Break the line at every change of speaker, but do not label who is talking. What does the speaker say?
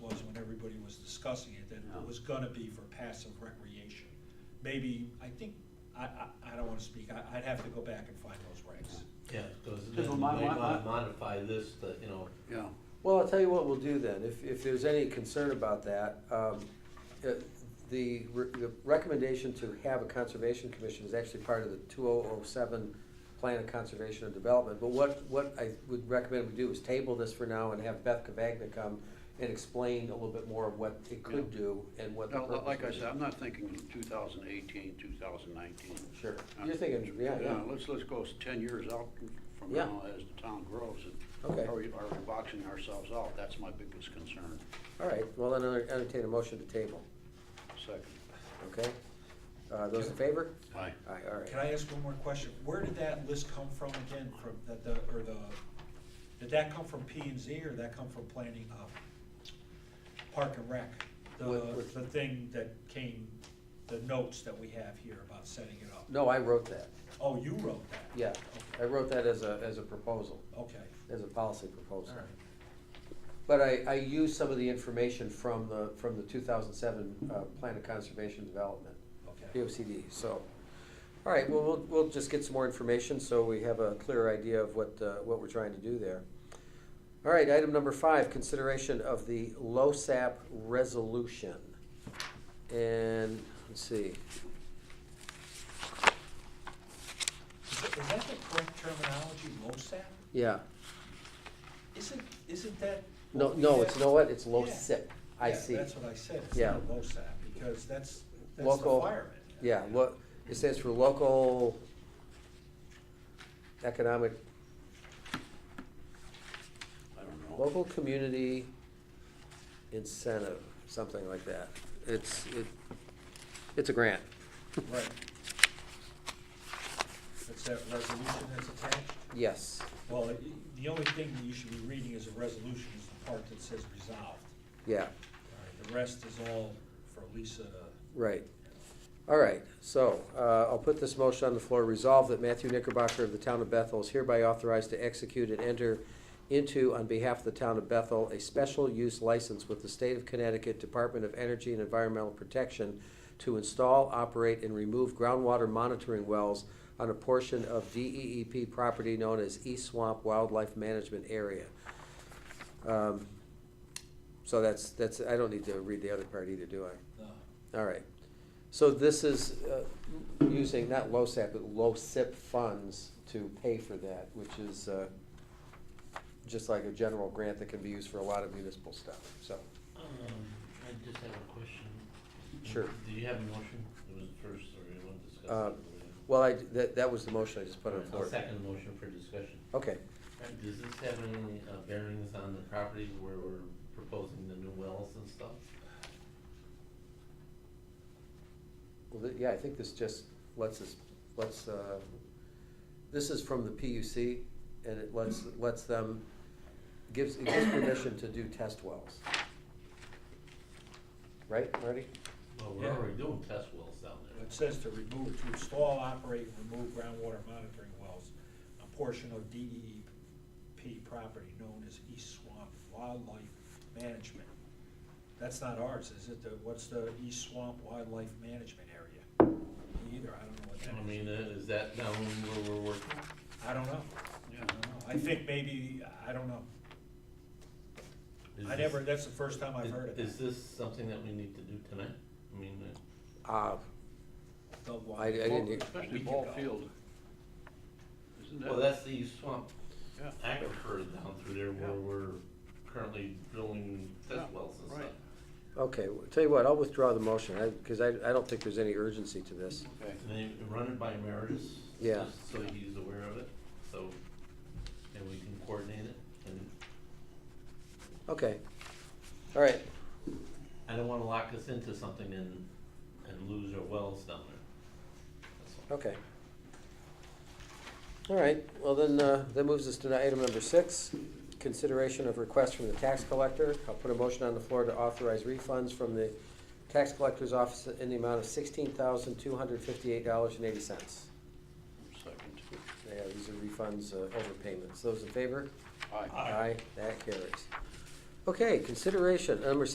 discussing it, that
Yeah.
it was gonna be for passive recreation. Maybe, I think, I, I, I don't wanna speak, I, I'd have to go back and find those regs.
Yeah, because
Because
then we
my-
might
my-
want to
my-
modify this, to, you know,
Yeah,
Well, I'll tell you what we'll do then, if, if there's any concern about that, um, uh, the, re- the recommendation to have a conservation commission is actually part of the two oh oh seven plan of conservation and development, but what, what I would recommend we do is table this for now and have Beth Cavagna come and explain a little bit more of what it could
Yeah.
do and what the
Now,
purpose
li- like I
is.
said, I'm not thinking 2018, 2019.
Sure,
I'm-
you're thinking, yeah, yeah,
Uh, Let's, let's go s- 10 years out from
Yeah.
now as the town grows. and
Okay.
Are we, are we boxing ourselves out? That's my biggest concern.
all right, well, then I'll entertain a motion to table,
Second.
okay? Uh, those in favor?
Aye.
Aye, all right.
Can I ask one more question? Where did that list come from again, from, that the, or the, did that come from P and Z, or did that come from planning, uh, Park and Rec? The,
What- what-
the thing that came, the notes that we have here about setting it up?
No, I wrote that,
Oh, you wrote that?
yeah, I wrote that as a, as a proposal.
Okay,
as a policy
all
proposal.
right,
But I, I used some of the information from the, from the two thousand seven, uh, Plan of Conservation Development,
okay.
POCD, so. All right, well, we'll, we'll just get some more information, so we have a clearer idea of what, uh, what we're trying to do there. All right, item number five, consideration of the LoSAP resolution. And, let's see,
Is that- is that the correct terminology, LoSAP?
yeah,
Isn't, isn't that?
no,
what we
no,
have?
it's, you know what, it's
Yeah.
LoSIP, I
Yeah,
see.
That's what I said, it's
Yeah.
not LoSAP, because that's, that's the
Local-
firemen.
Yeah, lo, it stands for local economic,
I don't know.
local community incentive, something like that. It's, it, it's a grant.
Right. It's that resolution that's attached?
Yes,
Well, it- the only thing that you should be reading as a resolution is the part that says resolved.
yeah,
All right, The rest is all for Lisa to.
right. All right, so, uh, I'll put this motion on the floor. Resolve that Matthew Knickerbocker of the Town of Bethel is hereby authorized to execute and enter into, on behalf of the Town of Bethel, a special use license with the State of Connecticut Department of Energy and Environmental Protection to install, operate, and remove groundwater monitoring wells on a portion of DEEP property known as East Swamp Wildlife Management Area. Um, So that's, that's, I don't need to read the other part either, do I?
no.
All right. So this is uh, using not LoSAP, but LoSIP funds to pay for that, which is uh, just like a general grant that can be used for a lot of municipal stuff, so.
um, I just have a question.
Sure.
Do you have a motion? It was first, or you want to discuss?
Uh,
it later?
Well, I, that, that was the motion I just put on the
I'll
floor.
second the motion for discussion.
Okay,
Does this have any uh, bearings on the property where we're proposing the new wells and stuff?
well, th- yeah, I think this just lets us, lets, uh, this is from the PUC, and it lets, lets them, gives, it gives permission to do test wells. Right, Marty?
Well, we're
Yeah.
already doing test wells down there.
It says to remove, to install, operate, and remove groundwater monitoring wells, a portion of DEP property known as East Swamp Wildlife Management. That's not ours, is it? The, what's the East Swamp Wildlife Management area? Me Either, I don't know what
I
that is.
mean, uh, is that down where we're working?
I don't know. I
Yeah.
don't know. I think maybe, I don't know.
Is
I
this-
never, that's the first time I've
is-
heard of
Is
that.
this something that we need to do tonight? I mean, uh,
Uh,
The wa-
I- I didn't-
Ball-
We
Especially
can
ball
go.
field. Isn't
well,
that?
that's the East swamp
Yeah.
aquifer down through there where
Yeah.
we're currently drilling
Yeah,
test wells and
right.
stuff.
Okay, well, tell you what, I'll withdraw the motion, because I, I don't think there's any urgency to this.
Okay.
And they run it by Meredith.
Yeah.
just So he's aware of it, so, and we can coordinate it, and
Okay, all right,
I don't wanna lock us into something and, and lose our wells down there. That's all.
okay. All right, well then, uh, that moves us to item number six, consideration of request from the tax collector. I'll put a motion on the floor to authorize refunds from the tax collector's office in the amount of sixteen thousand, two hundred fifty-eight dollars and eighty cents.
Second.
Yeah, these are refunds, uh, overpayments. Those in favor?
Aye.
Aye.
That carries. Okay, consideration, number